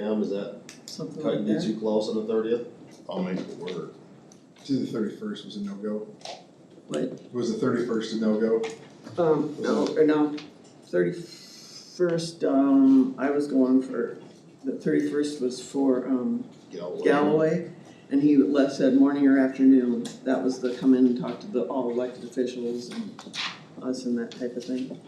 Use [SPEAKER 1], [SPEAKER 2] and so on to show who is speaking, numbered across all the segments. [SPEAKER 1] p.m. is that
[SPEAKER 2] something like
[SPEAKER 1] cutting it
[SPEAKER 2] that.
[SPEAKER 1] too close on the thirtieth?
[SPEAKER 3] I'll make it work.
[SPEAKER 4] To the thirty-first was a no-go.
[SPEAKER 2] What?
[SPEAKER 4] Was the thirty-first a no-go?
[SPEAKER 2] Um, no, or no, thirty-first, um, I was going for, the thirty-first was for, um,
[SPEAKER 3] Galloway.
[SPEAKER 2] Galloway, and he left, said morning or afternoon, that was the come in and talk to the, all elected officials and us and that type of thing.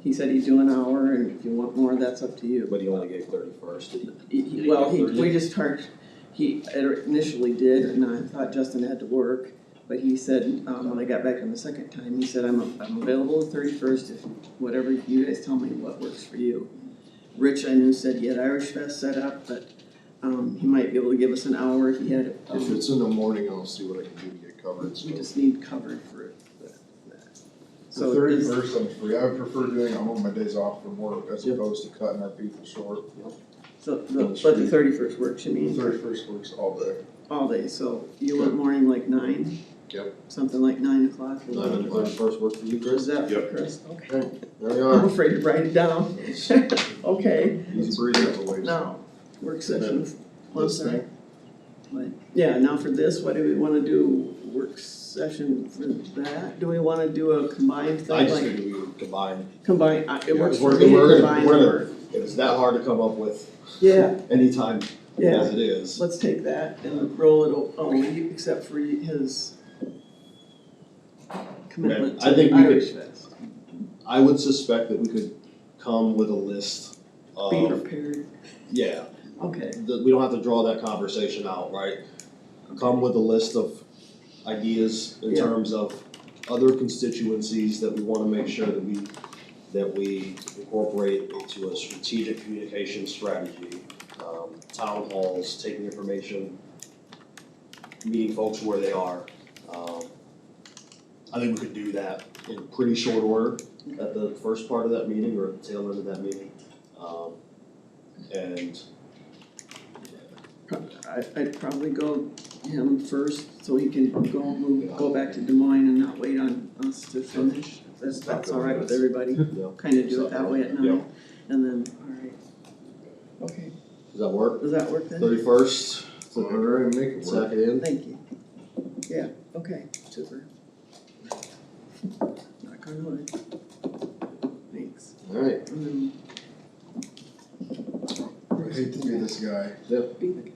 [SPEAKER 2] He said he'd do an hour, and if you want more, that's up to you.
[SPEAKER 1] But do you wanna get thirty first?
[SPEAKER 2] He- he- Well, he, we just charged, he initially did, and I thought Justin had to work, but he said, um, when I got back on the second time, he said, I'm, I'm available the thirty-first, if, whatever, you guys tell me what works for you. Rich, I knew, said he had Irish Fest set up, but, um, he might be able to give us an hour if he had,
[SPEAKER 3] If
[SPEAKER 2] um,
[SPEAKER 3] it's in the morning, I'll see what I can do to get covered, so.
[SPEAKER 2] we just need cover for it. but-
[SPEAKER 4] The
[SPEAKER 2] So it is,
[SPEAKER 4] thirty-first, I'm free. I would prefer doing it on my days off from work as
[SPEAKER 1] Yep.
[SPEAKER 4] opposed to cutting our people short.
[SPEAKER 2] so, the- but the thirty-first works, you
[SPEAKER 4] The
[SPEAKER 2] mean,
[SPEAKER 4] thirty-first works all day.
[SPEAKER 2] all day, so you want morning like nine?
[SPEAKER 3] Yep.
[SPEAKER 2] Something like nine o'clock or whatever.
[SPEAKER 1] Nine o'clock first work for you,
[SPEAKER 2] Is
[SPEAKER 1] Chris?
[SPEAKER 2] that for
[SPEAKER 3] Yep.
[SPEAKER 2] Chris? Okay.
[SPEAKER 1] There we
[SPEAKER 2] I'm
[SPEAKER 1] are.
[SPEAKER 2] afraid to write it down. Okay,
[SPEAKER 3] Easy breathe.
[SPEAKER 2] now, work sessions. Well,
[SPEAKER 3] This
[SPEAKER 2] sorry.
[SPEAKER 3] thing,
[SPEAKER 2] What? Yeah, now for this, what do we wanna do? Work session for that? Do we wanna do a combined
[SPEAKER 1] I
[SPEAKER 2] thing,
[SPEAKER 1] just
[SPEAKER 2] like
[SPEAKER 1] think we would combine,
[SPEAKER 2] combine, I- it
[SPEAKER 1] Yeah,
[SPEAKER 2] works
[SPEAKER 1] if
[SPEAKER 2] for
[SPEAKER 1] we're-
[SPEAKER 2] me
[SPEAKER 1] we're
[SPEAKER 2] to
[SPEAKER 1] gonna-
[SPEAKER 2] combine.
[SPEAKER 1] we're
[SPEAKER 2] the
[SPEAKER 1] gonna-
[SPEAKER 2] work.
[SPEAKER 1] if it's that hard to come up with
[SPEAKER 2] Yeah,
[SPEAKER 1] anytime
[SPEAKER 2] yeah,
[SPEAKER 1] as it is.
[SPEAKER 2] let's take that and roll it, o- oh, you- except for his commitment
[SPEAKER 1] I think
[SPEAKER 2] to
[SPEAKER 1] we could-
[SPEAKER 2] Irish Fest.
[SPEAKER 1] I would suspect that we could come with a list
[SPEAKER 2] Be
[SPEAKER 1] of,
[SPEAKER 2] prepared,
[SPEAKER 1] yeah,
[SPEAKER 2] okay,
[SPEAKER 1] that we don't have to draw that conversation out, right? Come with a list of ideas in
[SPEAKER 2] Yeah.
[SPEAKER 1] terms of other constituencies that we wanna make sure that we, that we incorporate into a strategic communication strategy. Um, town halls, taking information, meeting folks where they are. Um, I think we could do that in pretty short order at the first part of that meeting or at the tail end of that meeting. Um, and
[SPEAKER 2] Prob- I, I'd probably go him first, so he can go move, go back to Des Moines and not wait on us to finish. If That's, that's all right with everybody,
[SPEAKER 1] Yeah,
[SPEAKER 2] kind of do it that way at
[SPEAKER 1] Yeah.
[SPEAKER 2] night, and then, all right. Okay,
[SPEAKER 1] does that work?
[SPEAKER 2] does that work then?
[SPEAKER 1] Thirty-first,
[SPEAKER 3] So, all right, make it work.
[SPEAKER 1] second in,
[SPEAKER 2] Thank you. Yeah, okay, super. Knock on wood. Thanks.
[SPEAKER 1] alright,
[SPEAKER 2] And then
[SPEAKER 4] I hate to be this guy,
[SPEAKER 2] be the-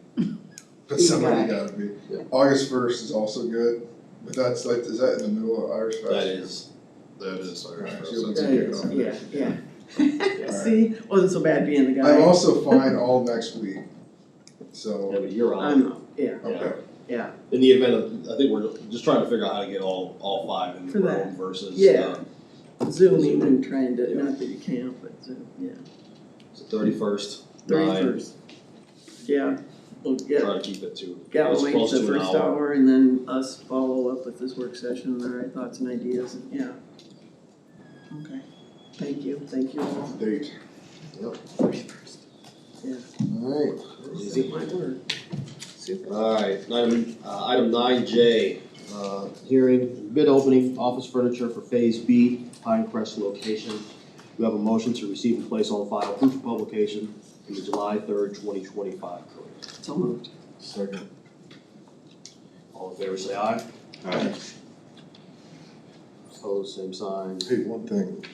[SPEAKER 4] but
[SPEAKER 2] Be
[SPEAKER 4] somebody
[SPEAKER 2] back.
[SPEAKER 4] gotta be.
[SPEAKER 1] Yeah.
[SPEAKER 4] August first is also good, but that's like, is that in the middle of Irish Fest?
[SPEAKER 1] that is,
[SPEAKER 3] That is Irish
[SPEAKER 4] Alright,
[SPEAKER 3] Fest.
[SPEAKER 4] she'll be
[SPEAKER 3] That's a
[SPEAKER 2] That
[SPEAKER 3] good
[SPEAKER 2] is,
[SPEAKER 3] one.
[SPEAKER 2] yeah, yeah. See, wasn't so bad being the guy.
[SPEAKER 4] I'm also fine all next week,
[SPEAKER 1] yeah,
[SPEAKER 4] so,
[SPEAKER 1] but you're on,
[SPEAKER 2] I'm, yeah,
[SPEAKER 4] okay.
[SPEAKER 2] yeah,
[SPEAKER 1] in the event of, I think we're just trying to figure out how to get all, all five in the
[SPEAKER 2] For that.
[SPEAKER 1] room versus,
[SPEAKER 2] Yeah.
[SPEAKER 1] uh,
[SPEAKER 2] zooming and trying to, not that you can't, but Zoom, yeah.
[SPEAKER 1] thirty-first, nine,
[SPEAKER 2] Thirty-first. Yeah, we'll get
[SPEAKER 1] try to keep it to, as
[SPEAKER 2] Galloway
[SPEAKER 1] close
[SPEAKER 2] the
[SPEAKER 1] to an
[SPEAKER 2] first
[SPEAKER 1] hour.
[SPEAKER 2] hour and then us follow up with this work session, and our thoughts and ideas, and- yeah. Okay, thank you, thank you all.
[SPEAKER 4] Date.
[SPEAKER 2] Thirty-first.
[SPEAKER 1] Alright, easy.
[SPEAKER 2] Might work. Super.
[SPEAKER 1] Alright, item, uh, item nine J, uh, hearing, bid opening, office furniture for phase B, Pinecrest location. We have a motion to receive and place on file proof of publication in the July third, twenty twenty-five.
[SPEAKER 2] So moved.
[SPEAKER 1] Second. All in favor, say aye.
[SPEAKER 3] Alright.
[SPEAKER 1] Opposed, same sign.
[SPEAKER 4] Hey, one thing.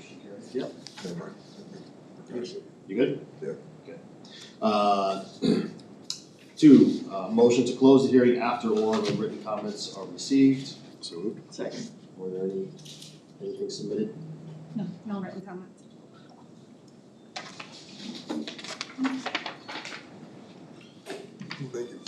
[SPEAKER 1] Yep.
[SPEAKER 4] Never mind. Gotcha.
[SPEAKER 1] You good?
[SPEAKER 4] Yeah.
[SPEAKER 1] Okay. Uh, two, uh, motion to close the hearing after oral and written comments are received.
[SPEAKER 3] So moved.
[SPEAKER 2] Second.
[SPEAKER 1] Were there any, anything submitted?
[SPEAKER 5] No, no written comments.
[SPEAKER 4] Thank you.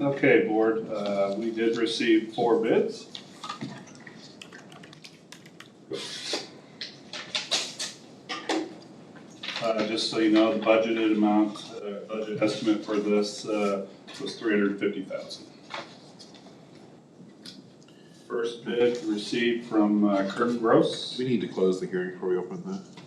[SPEAKER 6] Okay, board, uh, we did receive four bids. Uh, just so you know, the budgeted amount, uh, budget estimate for this, uh, was three hundred and fifty thousand.
[SPEAKER 7] first bid received from uh, Kirk Gross.
[SPEAKER 6] uh, We need to close the hearing before we open the